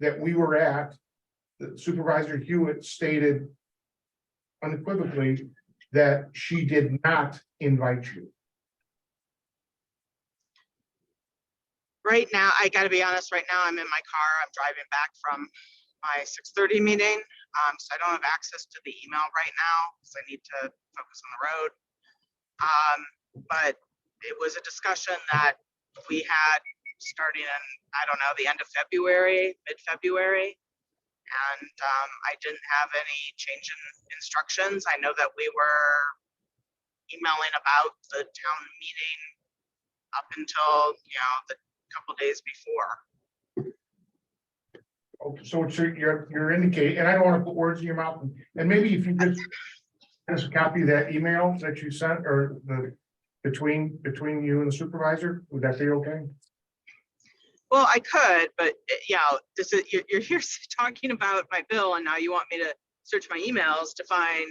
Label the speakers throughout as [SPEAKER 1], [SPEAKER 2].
[SPEAKER 1] that we were at, that Supervisor Hewitt stated unequivocally that she did not invite you.
[SPEAKER 2] Right now, I gotta be honest, right now, I'm in my car. I'm driving back from my six thirty meeting. Um, so I don't have access to the email right now, because I need to focus on the road. Um, but it was a discussion that we had starting in, I don't know, the end of February, mid-February. And, um, I didn't have any change in instructions. I know that we were emailing about the town meeting up until, you know, the couple days before.
[SPEAKER 1] Okay, So it's your- you're, you're indicating, and I don't want to put words in your mouth, and maybe if you just just copy that email that you sent or the between, between you and the supervisor, would that be okay?
[SPEAKER 2] Well, I could, but uh, yeah, this is, you're, you're here talking about my bill and now you want me to search my emails to find,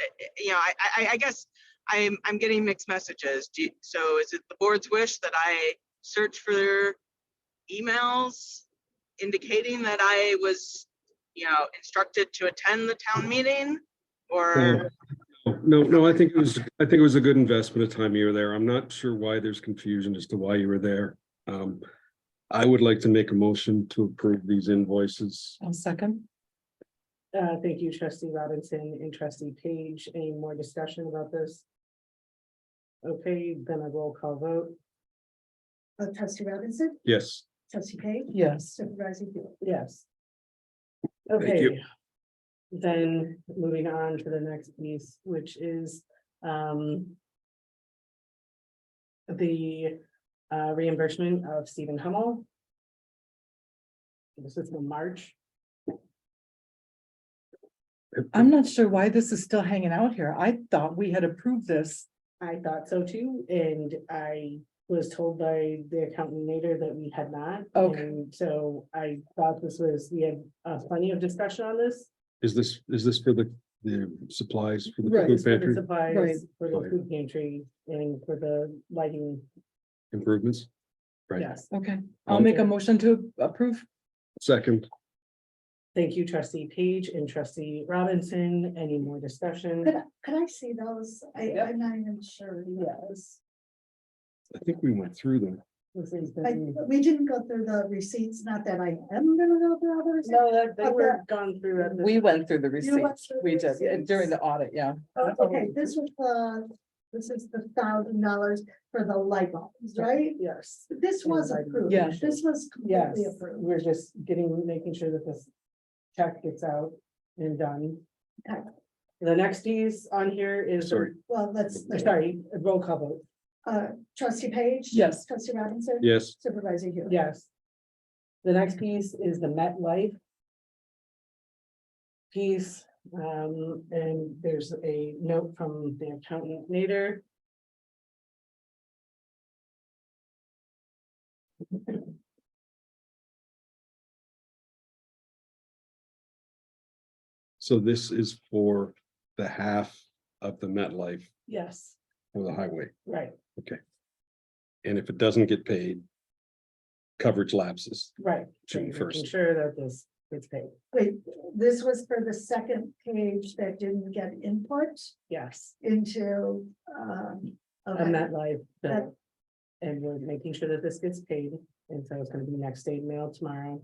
[SPEAKER 2] uh, uh, you know, I, I, I guess I'm, I'm getting mixed messages. Do, you- so is it the board's wish that I search for emails indicating that I was, you know, instructed to attend the town meeting? Or,
[SPEAKER 3] No, no, I think it was, I think it was a good investment of time you were there. I'm not sure why there's confusion as to why you were there. Um, I would like to make a motion to approve these invoices.
[SPEAKER 4] I'll second.
[SPEAKER 5] Uh, thank you, trustee Robinson and trustee Page. Any more discussion about this? Okay, then a roll call vote.
[SPEAKER 6] Uh, trustee Robinson,
[SPEAKER 3] Yes,
[SPEAKER 6] trustee Page,
[SPEAKER 4] Yes,
[SPEAKER 6] supervisor Hewitt.
[SPEAKER 5] Yes.
[SPEAKER 3] Thank you.
[SPEAKER 5] Okay. Then moving on to the next piece, which is um. The uh, reimbursement of Stephen Hummel. This is from March.
[SPEAKER 4] I'm not sure why this is still hanging out here. I thought we had approved this.
[SPEAKER 5] I thought so too, and I was told by the accountant later that we had not.
[SPEAKER 4] Okay.
[SPEAKER 5] and So I thought this was, we had uh, plenty of discussion on this.
[SPEAKER 3] is this, is this for the, the supplies for the
[SPEAKER 4] Right,
[SPEAKER 3] food
[SPEAKER 5] For the
[SPEAKER 3] pantry
[SPEAKER 4] Right.
[SPEAKER 5] Supplies for the
[SPEAKER 3] Right.
[SPEAKER 5] food pantry and for the lighting,
[SPEAKER 3] improvements? Right.
[SPEAKER 5] yes.
[SPEAKER 4] Okay, I'll make a
[SPEAKER 5] Okay.
[SPEAKER 4] motion to approve.
[SPEAKER 3] Second,
[SPEAKER 5] Thank you, trustee Page and trustee Robinson. Any more
[SPEAKER 6] Could,
[SPEAKER 5] discussion?
[SPEAKER 6] I- could I see those? I,
[SPEAKER 5] Yep.
[SPEAKER 6] I'm not even sure. Yes.
[SPEAKER 3] I think we went through them.
[SPEAKER 5] This is
[SPEAKER 6] I,
[SPEAKER 5] the-
[SPEAKER 6] we didn't go through the receipts, not that I am gonna go through all the receipts.
[SPEAKER 5] No, that- they were gone through. at this-
[SPEAKER 4] We went through the
[SPEAKER 6] You went
[SPEAKER 4] receipts.
[SPEAKER 6] through
[SPEAKER 4] We
[SPEAKER 6] the
[SPEAKER 4] did yeah, during the audit, yeah.
[SPEAKER 6] Oh, Okay, this was the, this is the thousand dollars for the light bulbs, right?
[SPEAKER 5] Yes.
[SPEAKER 6] This was
[SPEAKER 5] Light bulb.
[SPEAKER 6] approved.
[SPEAKER 4] Yeah.
[SPEAKER 6] This was
[SPEAKER 5] Yes,
[SPEAKER 6] completely approved.
[SPEAKER 5] we're just getting, making sure that this check gets out and done.
[SPEAKER 6] Okay.
[SPEAKER 5] The next piece on here is,
[SPEAKER 3] Sorry.
[SPEAKER 6] Well, let's,
[SPEAKER 5] sorry, roll call vote,
[SPEAKER 6] uh, trustee Page.
[SPEAKER 4] Yes.
[SPEAKER 6] Trustee Robinson.
[SPEAKER 3] Yes,
[SPEAKER 6] Supervisor Hewitt.
[SPEAKER 5] yes. The next piece is the Met Life. Piece, um, and there's a note from the accountant later.
[SPEAKER 3] so this is for the half of the MetLife
[SPEAKER 5] Yes.
[SPEAKER 3] for the highway.
[SPEAKER 5] Right,
[SPEAKER 3] And if it doesn't get paid, coverage lapses.
[SPEAKER 5] right. So
[SPEAKER 3] June
[SPEAKER 5] you're making
[SPEAKER 3] 1st.
[SPEAKER 5] Sure that this gets paid,
[SPEAKER 6] Wait, this was for the second page that didn't get input
[SPEAKER 5] yes.
[SPEAKER 6] into, um.
[SPEAKER 5] a
[SPEAKER 6] okay.
[SPEAKER 5] MetLife
[SPEAKER 6] That-
[SPEAKER 5] bill. And we're making sure that this gets paid, and so it's gonna be next state mail tomorrow.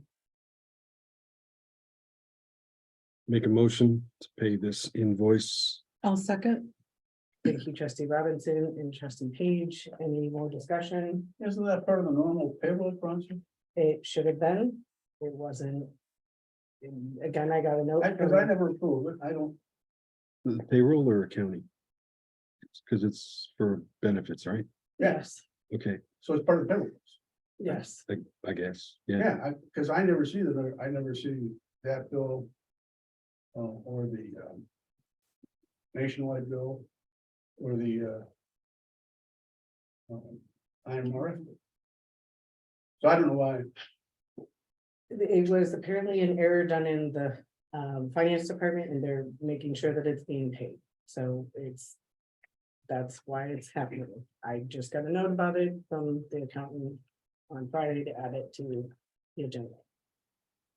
[SPEAKER 3] Make a motion to pay this invoice.
[SPEAKER 4] I'll second.
[SPEAKER 5] Thank you, trustee Robinson and trustee Page, any more discussion?
[SPEAKER 7] Isn't that part of the normal payroll function?
[SPEAKER 5] It should have been, it wasn't. And Again, I got a note.
[SPEAKER 7] Because I
[SPEAKER 5] from-
[SPEAKER 7] never approve it. I don't,
[SPEAKER 3] The Payroll or accounting? Because it's for benefits, right?
[SPEAKER 5] Yes,
[SPEAKER 3] Okay,
[SPEAKER 7] so it's part of the payroll.
[SPEAKER 5] yes,
[SPEAKER 3] I, I guess, yeah.
[SPEAKER 7] Yeah, I, because I never see that. I never see that bill. Uh, or the, um. Nationwide bill. Or the, uh. um, IMRF. So I don't know why.
[SPEAKER 5] it was apparently an error done in the um finance department, and they're making sure that it's being paid, so it's. That's why it's happening, I just got a note about it from the accountant on Friday to add it to the agenda.